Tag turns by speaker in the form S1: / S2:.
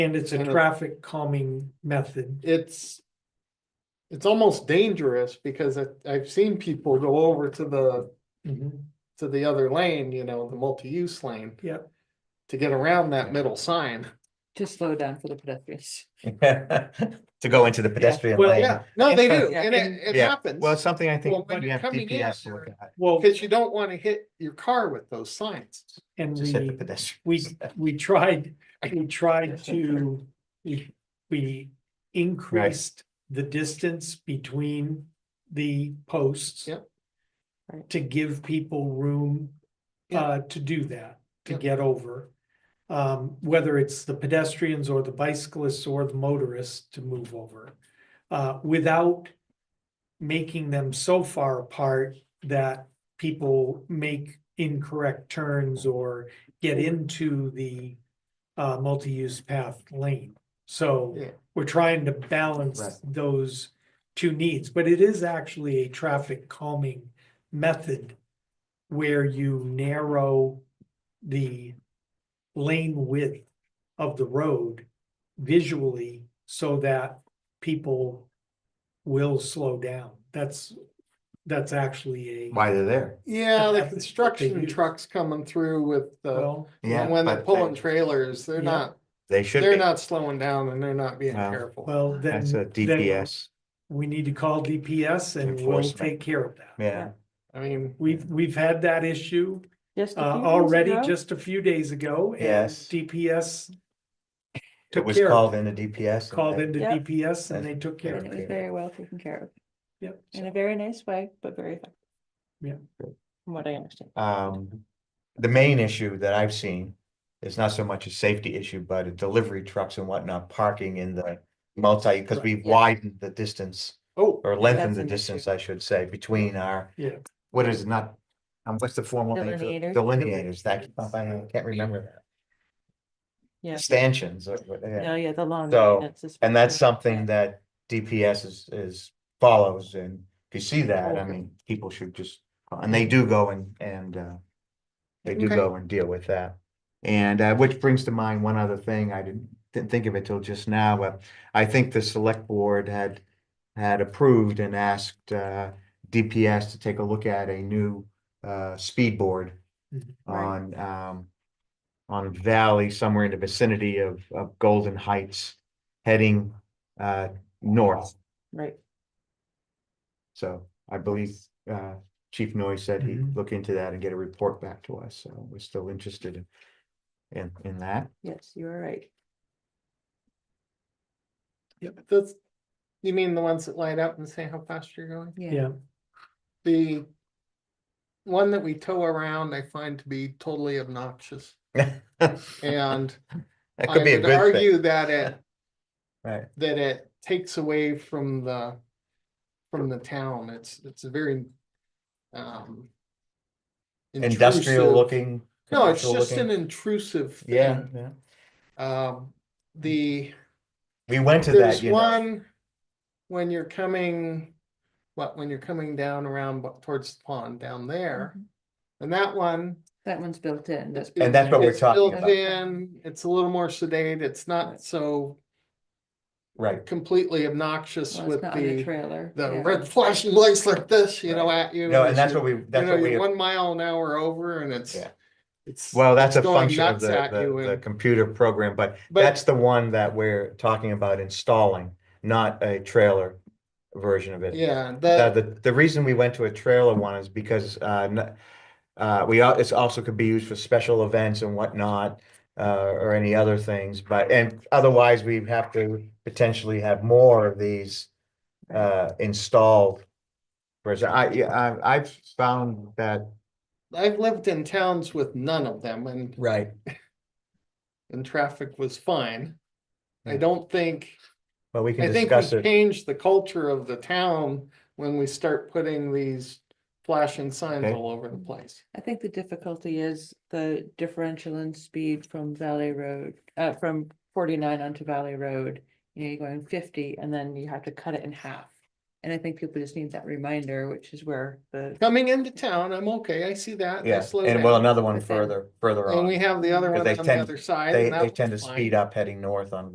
S1: And it's a
S2: And it-
S1: traffic calming method.
S2: it's it's almost dangerous because I, I've seen people go over to the Mm-hmm. to the other lane, you know, the multi-use lane.
S1: Yep.
S2: To get around that middle sign.
S3: to slow down for the pedestrians.
S4: To go into the pedestrian
S1: Well,
S4: lane.
S2: Yeah, no, they do,
S3: Yeah,
S2: and it, it
S4: Yeah,
S2: happens,
S4: Well, it's something I
S2: Well,
S4: think
S2: when
S4: we
S2: you're
S4: have
S2: coming in
S4: DPS to
S2: there-
S4: look at,
S1: Well,
S2: because you don't wanna hit your car with those signs.
S1: and
S4: just hit the
S1: we,
S4: pedestrian.
S1: we, we tried, we tried to, we, we increased the distance between the posts.
S2: Yep.
S3: Right.
S1: To give people room,
S2: Yeah.
S1: uh, to do that, to
S2: Yep.
S1: get over. Um, whether it's the pedestrians or the bicyclists or the motorists to move over, uh, without. Making them so far apart that people make incorrect turns or get into the uh, multi-use path lane. So
S2: Yeah.
S1: we're trying to balance
S4: Right.
S1: those two needs, but it is actually a traffic calming method where you narrow the lane width of the road visually so that people will slow down. That's, that's actually a,
S4: Why uh, they're there.
S2: Yeah, the
S1: That's- they
S2: construction
S1: use-
S2: trucks coming through with the,
S1: well,
S4: Yeah.
S2: when they're
S4: but
S2: pulling
S4: they-
S2: trailers, they're
S1: Yeah.
S2: not,
S4: They should
S2: they're
S4: be.
S2: not slowing down and they're not being
S4: No.
S2: careful.
S1: well, then.
S4: That's a
S1: then
S4: DPS.
S1: We need to call DPS and we'll
S4: Enforcement.
S1: take care of that.
S4: Yeah.
S2: I mean,
S1: We've, we've had that issue
S3: Just
S1: uh
S3: a few days
S1: already
S3: ago,
S1: just a few days ago. and
S4: Yes.
S1: DPS
S4: It
S1: took
S4: was
S1: care of
S4: called
S1: it.
S4: in a DPS. and
S1: Called
S4: they-
S1: into
S3: Yeah.
S1: DPS and they took care
S3: and
S1: of
S3: It
S1: it.
S3: was very well taken care of,
S1: Yep.
S3: in a very nice way, but very effective.
S1: Yeah.
S4: Good.
S3: From what I understand.
S4: Um, the main issue that I've seen is not so much a safety issue, but a delivery trucks and whatnot parking in the multi, because
S1: Right.
S4: we've
S3: Yeah.
S4: widened the distance
S2: oh,
S4: or lengthened
S3: That's
S4: the
S3: an issue.
S4: distance, I should say, between our,
S1: Yeah.
S4: what is it, not, um, what's the formal name? for it?
S3: Delineators.
S4: Delineators, that, I can't remember
S3: Yeah,
S4: that, stanchions, or what- yeah.
S3: no, yeah, the long.
S4: So,
S3: maintenance is
S4: And that's
S3: really
S4: something
S3: bad.
S4: that DPS is, is follows and if you see that, I
S2: Okay.
S4: mean, people should just, and they do go and, and, uh. They do
S2: Okay.
S4: go and deal with that. And, uh, which brings to mind one other thing, I didn't, didn't think of it till just now, but I think the select board had. Had approved and asked, uh, DPS to take a look at a new, uh, speed board.
S1: Mhm.
S2: Mm-hmm,
S4: On, um, on Valley, somewhere in the vicinity of, of Golden Heights, heading, uh, north.
S3: Right,
S4: So I believe uh Chief Noy said he'd
S2: Mm-hmm.
S1: Mhm.
S4: look into that and get a report back to us, so we're still interested in. In in that,
S3: yes, you are right.
S2: that's, you mean the ones that light up and say how fast you're going?
S1: Yeah,
S2: The one that we tow around, I find to be totally obnoxious and
S4: that
S2: I
S4: could be a
S2: would
S4: good thing,
S2: argue that it,
S4: right?
S2: that it takes away from the, from the town. It's, it's a very, um.
S4: Industrial
S2: intrusive-
S4: looking.
S2: No, it's
S4: commercial
S2: just an
S4: looking-
S2: intrusive
S4: Yeah,
S2: thing.
S4: yeah,
S2: Um, the,
S4: we went to that,
S2: there's
S4: you know,
S2: one, when you're coming, what, when you're coming down around bu- towards the pond down there.
S3: Mhm.
S4: Mm-hmm.
S2: And that one,
S3: That one's built in, that's.
S4: And that's what we're
S2: It's
S4: talking
S2: built
S4: about.
S2: in, it's a little more sedate, it's not so
S4: right,
S2: completely obnoxious
S3: well, it's
S2: with
S3: not on a
S2: the,
S3: trailer.
S2: the
S3: yeah.
S2: red flashing lights like this, you know, at you.
S4: no,
S2: as
S4: and that's
S2: you're-
S4: what we,
S2: You
S4: that's
S2: know,
S4: what we,
S2: you're one mile an hour over and it's,
S4: Yeah.
S2: it's,
S4: well, that's a
S2: it's going
S4: function of
S2: nuts
S4: the,
S2: at you
S4: the, the
S2: and-
S4: computer program, but.
S2: but
S4: That's the one that we're talking about installing, not a trailer version of it.
S2: yeah,
S4: Uh,
S2: that,
S4: the, the reason we went to a trailer one is because, uh, n- uh, we, al- it's also could be used for special events and whatnot. Uh, or any other things, but, and otherwise we have to potentially have more of these, uh, installed. Whereas I, yeah, I, I've found that.
S2: I've lived in towns with none of them and
S4: Right.
S2: and traffic was fine. I
S4: Yeah.
S2: don't think,
S4: But Hmm. we
S2: I
S4: can
S2: think
S4: discuss
S2: we
S4: it,
S2: changed the culture of the town when we start putting these flashing signs
S4: Okay.
S2: all over the place.
S3: I think the difficulty is the differential in speed from Valley Road, uh, from forty-nine onto Valley Road. You know, you're going fifty and then you have to cut it in half. And I think people just need that reminder, which is where the,
S2: Coming into town, I'm okay, I see that. I
S4: yeah,
S2: slow
S4: and well,
S2: down.
S4: another one
S3: But then-
S4: further, further
S2: And we
S4: on.
S2: have the other
S4: 'cause
S2: one
S4: they
S2: on the
S4: tend-
S2: other side.
S4: They,
S2: and that
S4: they
S2: was
S4: tend to
S2: fine.
S4: speed up heading north on